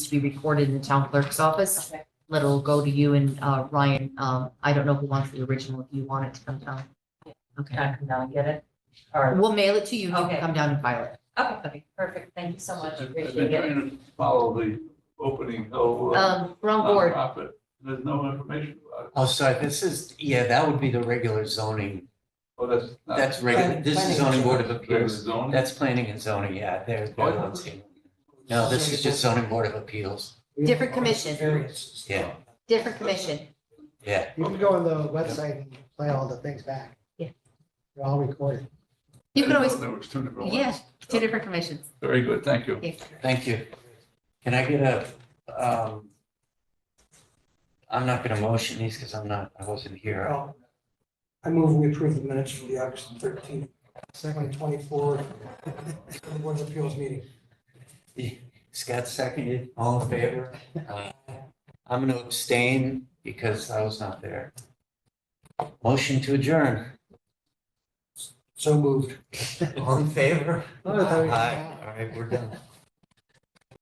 to be recorded in the town clerk's office. Okay. It'll go to you and uh, Ryan. Um, I don't know who wants the original, if you want it to come down. Okay, I can now get it. All right. we'll mail it to you. You can Okay. come down and file it. Okay, perfect. Thank you so much. I've been Appreciate it. trying to follow the opening, though. uh, Um, wrong board. nonprofit, There's no information about it. Oh, sorry, this is, yeah, that would be the regular zoning. Oh, that's. not- That's regular, this is zoning board of There's appeals. zoning. That's planning and zoning, yeah, there's. No, this is just zoning board of appeals. Different commission. Variances. Yeah. Different commission. Yeah, You can go on the website and play all the things back. Yeah. They're all recorded. You can I didn't always, know There was two different ones. yes, two different commissions. Very good, thank you. Yes. thank you. Can I get a, um, I'm not gonna motion these because I'm not, I wasn't here. Well, I move we approve the minutes for the August thirteenth, second twenty-four, Board of Appeals meeting. Scott seconded, all in favor? Uh, I'm gonna abstain because I was not there. Motion to adjourn. So moved. All in favor? Oh, I thought we- Aye. All right, we're done.